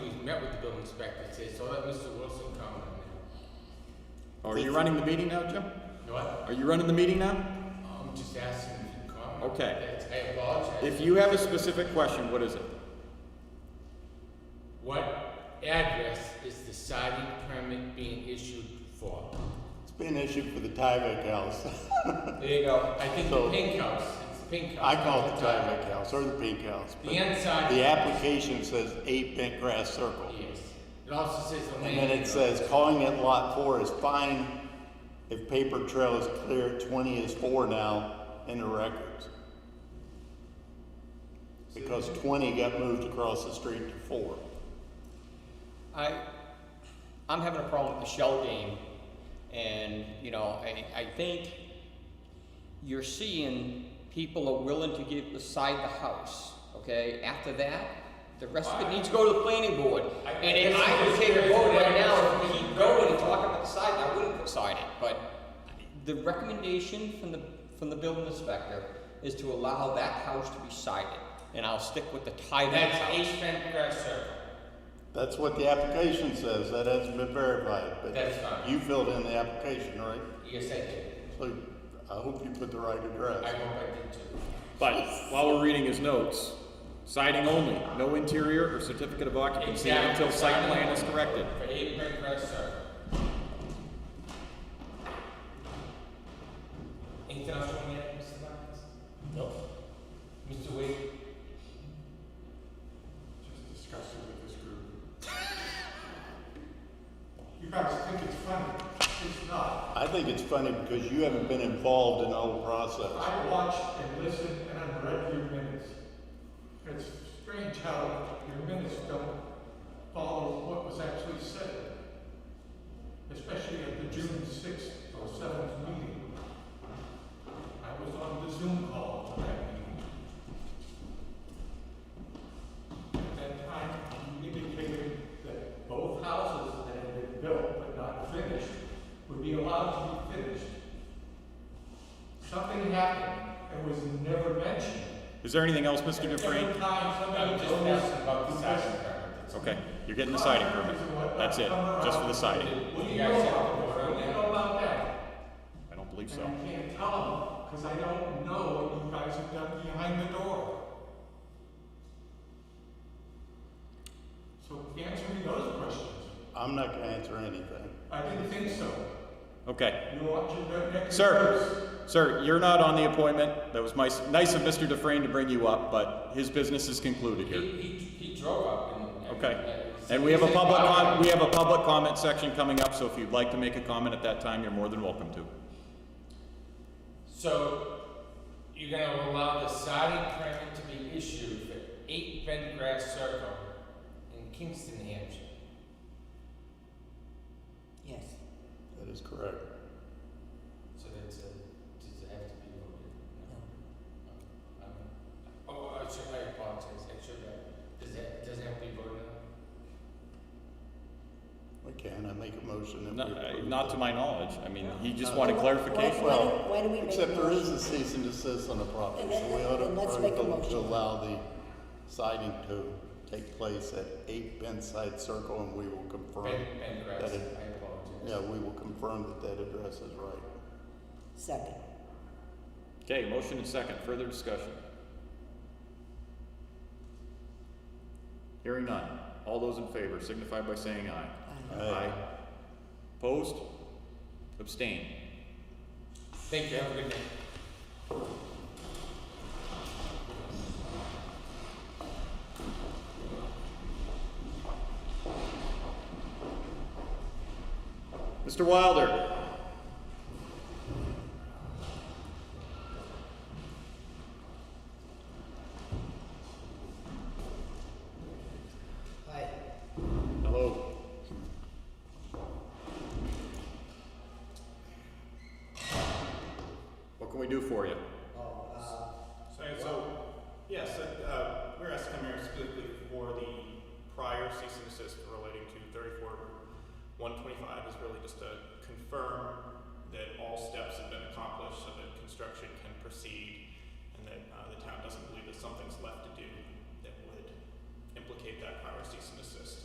inspector today, so let Mr. Wilson come and, Are you running the meeting now, Jim? you know what? Are you running the meeting now? I'm just asking if you comment. Okay. That's- I apologize. If you have a specific question, what is it? What address is the siding permit being issued for? It's been issued for the Tyvek House. There you go. I think the So- pink house, it's the pink house. I call it the Tyvek House or the Pink House. The But inside. the application says eight bent grass circle. Yes. It also says the And land. then it says calling it lot four is fine if paper trail is clear, twenty is four now in the records. Because twenty got moved across the street to four. I, I'm having a problem with the shell game, and you know, I, I think you're seeing people are willing to give beside the house. Okay, after that, the rest of it needs to go to the planning board. I- and if I- I would take a vote right now, if we keep going and talking about the side, I wouldn't put side it. But the recommendation from the from the building inspector is to allow that house to be sided, and I'll stick with the tie And that that's house. eight bent grass circle. That's what the application says. That hasn't been verified, That's but fine. you filled in the application, right? Yes, I did. So I hope you put the right I address. hope I did too. But while we're reading his notes, siding only, no interior or certificate of occupancy Exactly. until site plan is corrected. For eight bent grass circle. Anything else you want to add, Mr. Lyons? No. Mr. Wade? Just discussing with this group. You guys think it's funny. It's not. I think it's funny because you haven't been involved in the whole process. I watched and listened and I've read your minutes. It's strange how your minutes don't follow what was actually said. Especially at the June sixth or seventh meeting. I was on the Zoom call for that meeting. At that time, you indicated that both houses that had been built but not finished would be allowed to be finished. Something happened and was never mentioned. Is there anything else, Mr. Dufresne? Every time I'm somebody just goes- asking about the siding permit. Okay, you're getting the siding permit. That's it, just for the siding. That's- What What do you you guys have know about, to vote on what do you that? know about that? I don't believe And so. I can't tell them, because I don't know what you guys have done behind the door. So answer me those questions. I'm not gonna answer anything. I didn't think so. Okay. You want your ne- next. Sir, sir, you're not on the appointment. That was my, nice of Mr. Dufresne to bring you up, but his business is concluded He, here. he, he drove up and. Okay. And we have a public, com- we have a public comment section coming up, so if you'd like to make a comment at that time, you're more than welcome to. So, you're gonna allow the siding permit to be issued for eight bent grass circle in Kingston, New Hampshire? Yes. That is correct. So that's a, does it have to be voted? No. Um, Oh, I should, I apologize, I should, have- does that, does it have to be voted on? We can, I make a motion that No, we uh, approve Not to that. my knowledge. I mean, he just wanted clarification. Why do- why do we make Except a there is motion? a cease and desist on the property, Then- so we ought to then let's make a approve to motion. allow the siding to take place at eight Benside Circle and we will confirm, Ben, Ben Grass, That is- I apologize. yeah, we will confirm that that address is right. Second. Okay, motion and second, further discussion. Hearing none, all those in favor signify by saying aye. Aye. Opposed? Abstain. Thank you, have a good night. Mr. Wilder? Hi, Hello. What can we do for you? oh, uh, So, so, yes, uh, we're asking here specifically for the prior cease and desist relating to thirty-four, one twenty-five is really just to confirm that all steps have been accomplished so that construction can proceed and that, uh, the town doesn't believe that something's left to do that would implicate that prior cease and desist.